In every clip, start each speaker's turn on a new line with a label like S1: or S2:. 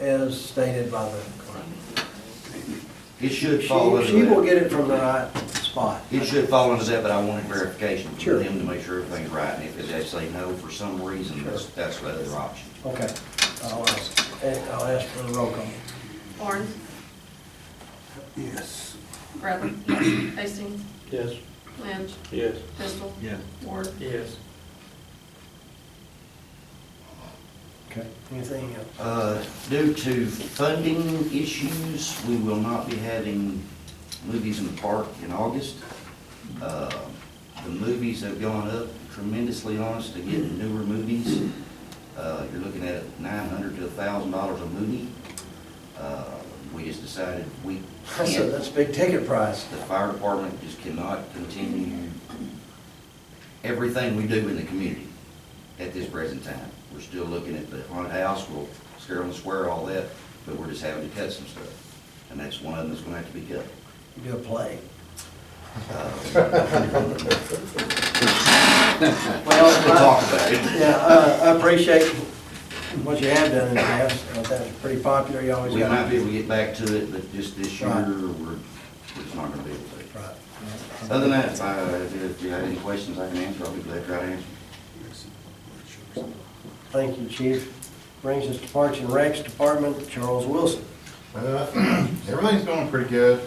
S1: as stated by the clerk.
S2: It should
S1: She,
S2: fall under
S1: she will
S2: that.
S1: get it from the right spot.
S2: It should fall under that, but I wanted verification
S1: Sure.
S2: from them to make sure everything's right. And if they say no for some reason, that's, that's the other option.
S1: Okay, I'll ask, I'll ask for the roll call.
S3: Horn.
S1: Yes.
S3: Bradley. Yes. Hastings.
S4: Yes.
S3: Lynch.
S4: Yes.
S3: Pistol.
S2: Yeah.
S3: Ward.
S4: Yes.
S1: Okay, anything else?
S2: Uh, Due to funding issues, we will not be having movies in the park in August. Uh, The movies have gone up tremendously on us to get newer movies. Uh, You're looking at nine hundred to a thousand dollars a movie. Uh, We just decided we
S1: That's a,
S2: can't.
S1: that's a big ticket price.
S2: The fire department just cannot continue everything we do in the community at this present time. We're still looking at the haunted house, we'll scare and swear all that, but we're just having to cut some stuff. And that's one of them that's gonna have to be cut. Uh,
S1: You Do a play.
S2: Well, we'll talk about it.
S1: uh, Yeah, uh, I, I appreciate what you have done in the past, Uh, that was pretty popular, you always
S2: We
S1: got.
S2: might be able to get back to it, but just this year,
S1: Right.
S2: we're, we're just not gonna be able to.
S1: Right.
S2: Other than that, if I- if you have any questions I can answer, I'll be glad to try to answer.
S1: Thank you, Chief. Brings us to Parks and Recs Department, Charles Wilson.
S5: Uh, Everything's going pretty good.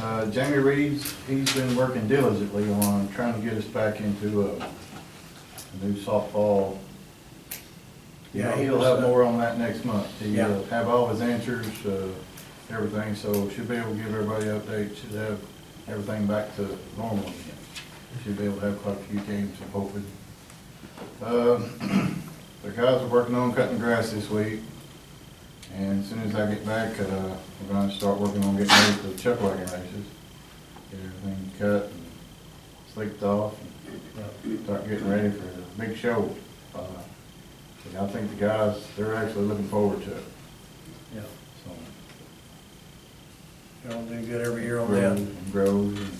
S5: Uh, Jamie Reed's, he's been working diligently on trying to get us back into a a new softball.
S1: Yeah,
S5: Yeah,
S1: he
S5: he'll
S1: was,
S5: have
S1: uh,
S5: more on that next month.
S1: Yeah.
S5: He'll have all his answers, uh, everything, so should be able to give everybody updates, should have everything back to normal again. Should be able to have quite a few games, I'm hoping. Um, The guys are working on cutting grass this week. And as soon as I get back, uh, we're gonna start working on getting ready for the chuck wagon races. Get everything cut and slicked off and start getting ready for the big show. Uh, And I think the guys, they're actually looking forward to it,
S1: Yeah.
S5: so.
S1: Y'all do good every year on
S5: Grows
S1: that.
S5: and grows and.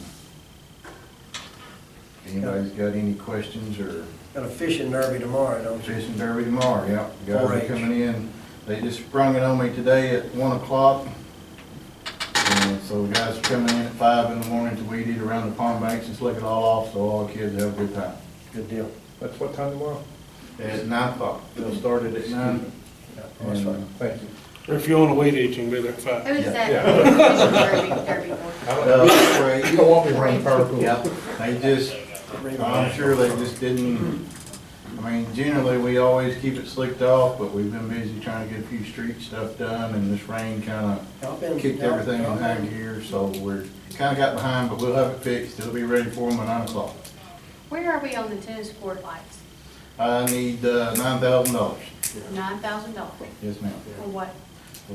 S5: if Anybody's got any questions or
S1: Got a fishing derby tomorrow, don't you?
S5: Fishing derby tomorrow, yep. The Guys are
S1: 4-H.
S5: coming in. They just sprung it on me today at one o'clock. And so the guys are coming in at five in the morning to weed eat around the pond banks and slick it all off, so all the kids have a good time.
S1: Good deal.
S6: That's what time tomorrow?
S5: At nine o'clock. They'll start it at nine.
S1: Yeah, that's
S5: And, uh,
S1: fine.
S6: Thank you.
S4: If you want to wait eight, you can be there at five.
S3: Who is that? Derby, Derby Board.
S5: uh,
S6: You don't want me running purple.
S5: Yep. They just, I'm sure they just didn't, I mean, generally, we always keep it slicked off, but we've been busy trying to get a few street stuff done and this rain kinda
S1: Y'all been-
S5: kicked
S1: y'all-
S5: everything
S1: y'all
S5: behind here, so we're, kinda got behind, but we'll have it fixed, it'll be ready for them by nine o'clock.
S3: Where are we on the tennis court lights?
S5: I need, uh, nine thousand dollars,
S3: Nine thousand dollars.
S5: yes ma'am.
S3: For what?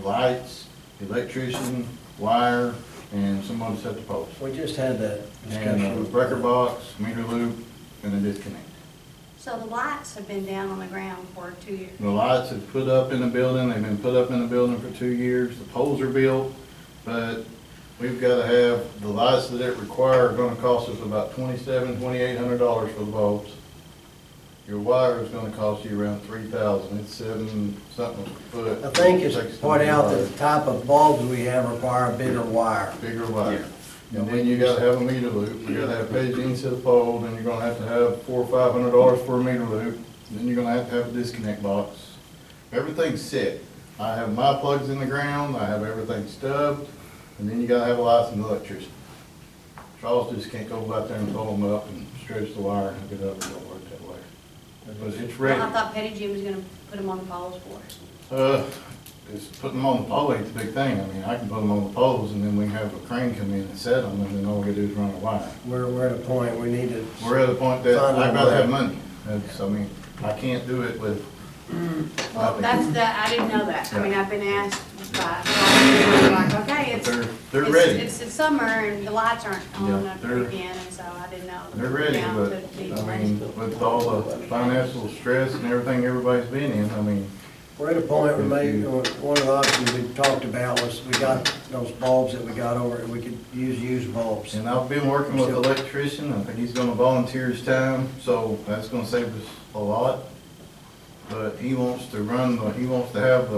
S5: Lights, electrician, wire, and someone to set the post.
S1: We just had that
S5: And uh, a
S1: discussion.
S5: breaker box, meter loop, and a disconnect.
S3: So the lights have been down on the ground for two years.
S5: The lights have put up in the building, they've been put up in the building for two years, the poles are built, but we've gotta have, the lights that it require are gonna cost us about twenty-seven, twenty-eight hundred dollars for the bulbs. Your wire is gonna cost you around three thousand, it's seven something a foot.
S1: I think it's
S5: Takes
S1: point out that
S5: wire,
S1: the type of bulbs we have require a bigger wire.
S5: Bigger wire. And then you gotta have a meter loop, you gotta have paging into the pole, then you're gonna have to have four or five hundred dollars for a meter loop, then you're gonna have to have a disconnect box. Everything's set. I have my plugs in the ground, I have everything stubbed, and then you gotta have a licensed electrician. Charles just can't go out there and pull them up and stretch the wire and hook it up, it don't work that way. But it's ready.
S3: Well, I thought Petty Jim was gonna put them on the poles for us.
S5: Uh, it's putting them on the pole ain't the big thing. I mean, I can put them on the poles and then we can have a crane come in and set them and then all we gotta do is run a wire.
S1: We're, we're at a point, we need to.
S5: We're at a point that
S1: Find
S5: I'd
S1: out
S5: rather
S1: where-
S5: have money. That's, I mean, I can't do it with.
S3: Mm. Well, that's
S5: nothing.
S3: the, I didn't know that. I mean, I've been asked by, like, okay,
S5: But
S3: it's,
S5: They're, they're
S3: it's,
S5: ready.
S3: it's the summer and the lights aren't on
S5: Yeah,
S3: up
S5: they're-
S3: again, and so I didn't know.
S5: They're ready,
S3: down
S5: but
S3: to the-
S5: I mean, with all the financial stress and everything everybody's been in, I mean,
S1: We're at a point where maybe,
S5: Mm-hmm.
S1: one of the options we talked about was, we got those bulbs that we got over, we could use used bulbs.
S5: and I've been working with an electrician. I think he's gonna volunteer his time, so that's gonna save us a lot. But he wants to run, the he wants to have the